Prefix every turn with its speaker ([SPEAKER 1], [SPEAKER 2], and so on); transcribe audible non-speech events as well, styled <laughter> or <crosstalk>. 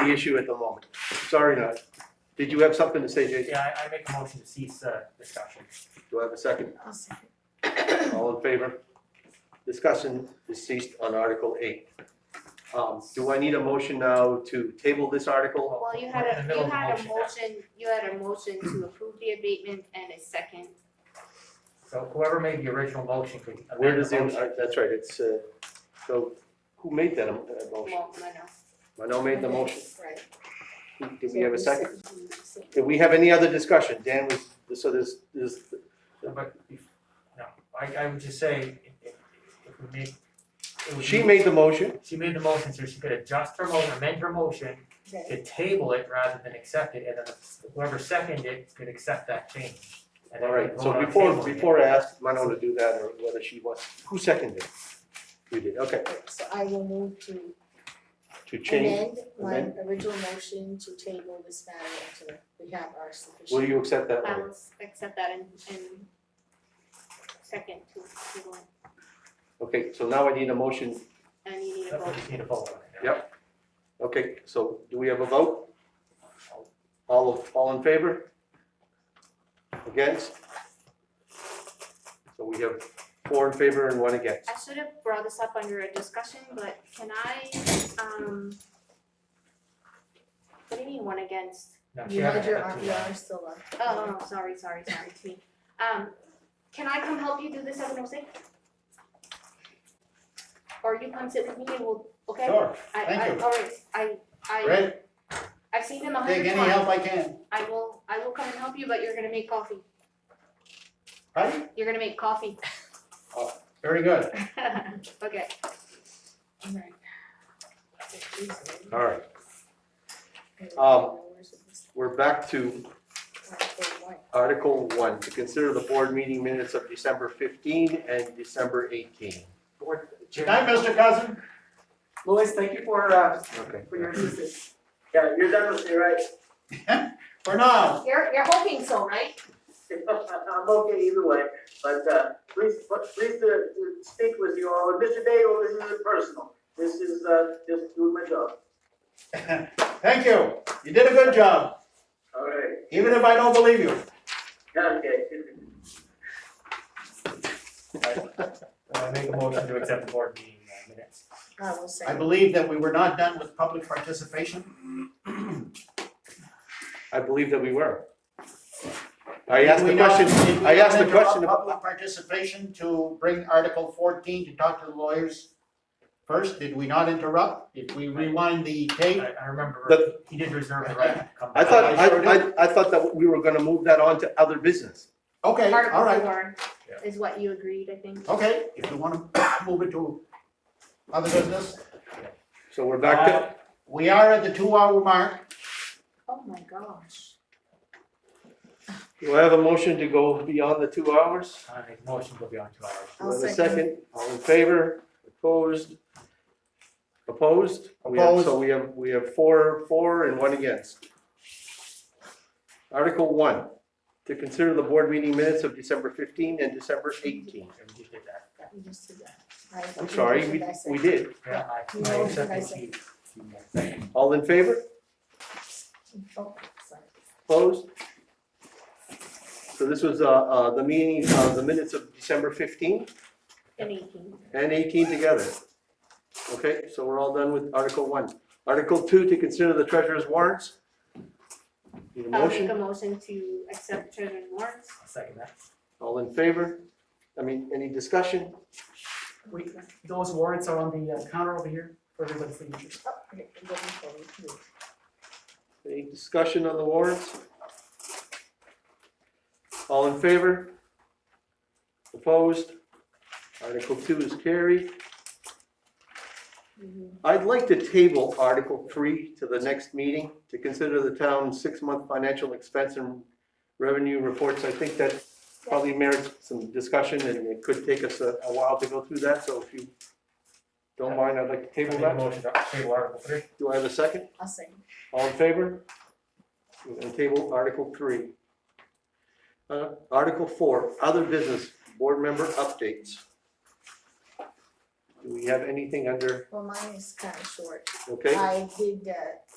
[SPEAKER 1] the issue at the moment. Sorry, not. Did you have something to say, Jason?
[SPEAKER 2] Yeah, I, I make a motion to cease, uh, discussion.
[SPEAKER 1] Do I have a second?
[SPEAKER 3] I'll second.
[SPEAKER 1] All in favor? Discussion is ceased on Article eight. Um, do I need a motion now to table this article?
[SPEAKER 3] Well, you had
[SPEAKER 2] We're in the
[SPEAKER 3] a,
[SPEAKER 2] middle
[SPEAKER 3] you
[SPEAKER 2] of
[SPEAKER 3] had a
[SPEAKER 2] motion now.
[SPEAKER 3] motion, you had a motion to approve the abatement and a second.
[SPEAKER 2] So whoever made the original motion could amend the motion.
[SPEAKER 1] Where does the, uh, that's right, it's, uh, so who made that um, uh, motion?
[SPEAKER 3] Well, no, no.
[SPEAKER 1] Mano made the motion.
[SPEAKER 3] Right.
[SPEAKER 1] Who- Did we have a second? Did we have any other discussion? Dan was, so there's, there's,
[SPEAKER 2] But, if- no, I, I would just say, if, if- if we make, it would
[SPEAKER 1] she
[SPEAKER 2] be-
[SPEAKER 1] made the motion.
[SPEAKER 2] She made the motion, so she could adjust her motion, amend her motion to table it rather than accept it, and then whoever seconded it could accept that change. And then
[SPEAKER 1] All
[SPEAKER 2] we
[SPEAKER 1] right, so
[SPEAKER 2] vote on
[SPEAKER 1] before,
[SPEAKER 2] tabling it.
[SPEAKER 1] before I ask Mano to do that or whether she wants, who seconded? it? You did, okay,
[SPEAKER 4] So I will move to
[SPEAKER 1] to change,
[SPEAKER 4] amend my original motion to table this matter until we have our
[SPEAKER 1] will
[SPEAKER 4] sufficient.
[SPEAKER 1] you accept that?
[SPEAKER 3] I
[SPEAKER 1] Manu?
[SPEAKER 3] will s- accept that and, and second to, to, go.
[SPEAKER 1] Okay, so now I need a motion.
[SPEAKER 3] and you need
[SPEAKER 2] But
[SPEAKER 3] a
[SPEAKER 2] we
[SPEAKER 3] vote.
[SPEAKER 2] just need to vote on it.
[SPEAKER 1] Yep. Okay, so do we have a vote?
[SPEAKER 2] I'll-
[SPEAKER 1] All of, all in favor? Against? So we have four in favor and one against.
[SPEAKER 3] I should have brought this up under a discussion, but can I, um, what do you mean one against?
[SPEAKER 2] No, she
[SPEAKER 4] You had
[SPEAKER 2] had
[SPEAKER 4] your,
[SPEAKER 2] it,
[SPEAKER 4] arm-
[SPEAKER 2] too,
[SPEAKER 4] your
[SPEAKER 2] uh,
[SPEAKER 4] arm still up.
[SPEAKER 3] Oh, oh, sorry, sorry, sorry, it's me. Um, can I come help you do this seven oh six? Or you come sit with me and we'll, okay?
[SPEAKER 5] Sure,
[SPEAKER 3] I,
[SPEAKER 5] thank
[SPEAKER 3] I,
[SPEAKER 5] you.
[SPEAKER 3] all right, I, I,
[SPEAKER 5] great,
[SPEAKER 3] I've seen him a
[SPEAKER 5] take
[SPEAKER 3] hundred
[SPEAKER 5] any help
[SPEAKER 3] times.
[SPEAKER 5] I can,
[SPEAKER 3] I will, I will come and help you, but you're gonna make coffee.
[SPEAKER 5] right?
[SPEAKER 3] You're gonna make coffee. <laughs>
[SPEAKER 5] Very good.
[SPEAKER 3] Okay.
[SPEAKER 4] Alright.
[SPEAKER 1] All right,
[SPEAKER 4] oh
[SPEAKER 1] um, we're back to Article one, to consider the board meeting minutes of December fifteen and December eighteen.
[SPEAKER 6] Board
[SPEAKER 5] Good
[SPEAKER 6] Chair.
[SPEAKER 5] night, Mr. Cousin.
[SPEAKER 6] Lois, thank you for, uh,
[SPEAKER 1] Okay.
[SPEAKER 6] for your assistance. Yeah, you're done with me, right? <laughs>
[SPEAKER 5] For now, <laughs>
[SPEAKER 3] You're, you're hoping so, right?
[SPEAKER 6] I'm okay either way, but, uh, please, but please to, to speak with you all, and Mr. Dale, this isn't personal. This is, uh, just doing my job.
[SPEAKER 5] thank you, you did a good job,
[SPEAKER 6] All right,
[SPEAKER 5] even if I don't believe you.
[SPEAKER 6] okay. <laughs>
[SPEAKER 2] I uh, make a motion to accept the board meeting uh, minutes.
[SPEAKER 4] I will
[SPEAKER 5] I
[SPEAKER 4] second.
[SPEAKER 5] believe that we were not done with public participation.
[SPEAKER 1] I believe that we were. I asked the
[SPEAKER 5] Did we not-
[SPEAKER 1] question,
[SPEAKER 5] did we
[SPEAKER 1] I asked the
[SPEAKER 5] not interrupt
[SPEAKER 1] question about-
[SPEAKER 5] Public participation to bring Article fourteen to talk to the lawyers first, did we not interrupt? Did we rewind the
[SPEAKER 2] I,
[SPEAKER 5] tape?
[SPEAKER 2] I remember,
[SPEAKER 1] But-
[SPEAKER 2] he did reserve the right to come
[SPEAKER 1] I
[SPEAKER 2] back.
[SPEAKER 1] thought, I,
[SPEAKER 5] I sure
[SPEAKER 1] I, I thought that we were gonna move that on to other business.
[SPEAKER 5] Okay, all
[SPEAKER 3] Article
[SPEAKER 5] right,
[SPEAKER 3] four
[SPEAKER 2] Yeah.
[SPEAKER 3] is what you agreed, I think.
[SPEAKER 5] okay, if you wanna <coughs> move it to other business,
[SPEAKER 1] So we're back to,
[SPEAKER 5] Uh, we are at the two-hour mark.
[SPEAKER 3] Oh my gosh.
[SPEAKER 1] do I have a motion to go beyond the two hours?
[SPEAKER 2] I make Uh, a motion to go beyond two hours.
[SPEAKER 1] Do I
[SPEAKER 4] I'll
[SPEAKER 1] have a
[SPEAKER 4] second.
[SPEAKER 1] second? All in favor? Opposed? Opposed? We have, so
[SPEAKER 5] Opposed.
[SPEAKER 1] we have, we have four, four and one against. Article one, to consider the board meeting minutes of December fifteen and December eighteen.
[SPEAKER 2] Yeah, we just did that.
[SPEAKER 4] We just did that. I-
[SPEAKER 1] I'm sorry, we, we did.
[SPEAKER 2] Yeah, I,
[SPEAKER 4] You
[SPEAKER 2] I
[SPEAKER 4] know,
[SPEAKER 2] accepted
[SPEAKER 4] I
[SPEAKER 2] she-
[SPEAKER 4] said-
[SPEAKER 2] she-
[SPEAKER 1] All in favor?
[SPEAKER 4] Oh, sorry.
[SPEAKER 1] Opposed? So this was, uh, uh, the meeting, uh, the minutes of December fifteen
[SPEAKER 3] In eighteen.
[SPEAKER 1] and eighteen together. Okay, so we're all done with Article one. Article two, to consider the treasurer's warrants. Need a
[SPEAKER 3] I'll make
[SPEAKER 1] motion?
[SPEAKER 3] a motion to accept treasurer's warrants.
[SPEAKER 2] I'll second that.
[SPEAKER 1] All in favor? I mean, any discussion?
[SPEAKER 7] We, those warrants are on the uh, counter over here for everybody's signature.
[SPEAKER 4] Oh, okay, I'm looking for it here.
[SPEAKER 1] Any discussion on the warrants? All in favor? Opposed? Article two is carried.
[SPEAKER 4] Mm-hmm.
[SPEAKER 1] I'd like to table Article three to the next meeting to consider the town's six-month financial expense and revenue reports. I think that probably merits some discussion and it could take us a a while to go through that, so if you don't mind, I'd like to
[SPEAKER 2] I
[SPEAKER 1] table
[SPEAKER 2] make
[SPEAKER 1] that.
[SPEAKER 2] a motion to table Article three.
[SPEAKER 1] Do I have a second?
[SPEAKER 4] I'll second.
[SPEAKER 1] All in favor? We're gonna table Article three. Uh, Article four, other business, board member updates. Do we have anything under,
[SPEAKER 4] Well, mine is kind of short.
[SPEAKER 1] okay?
[SPEAKER 4] I did uh,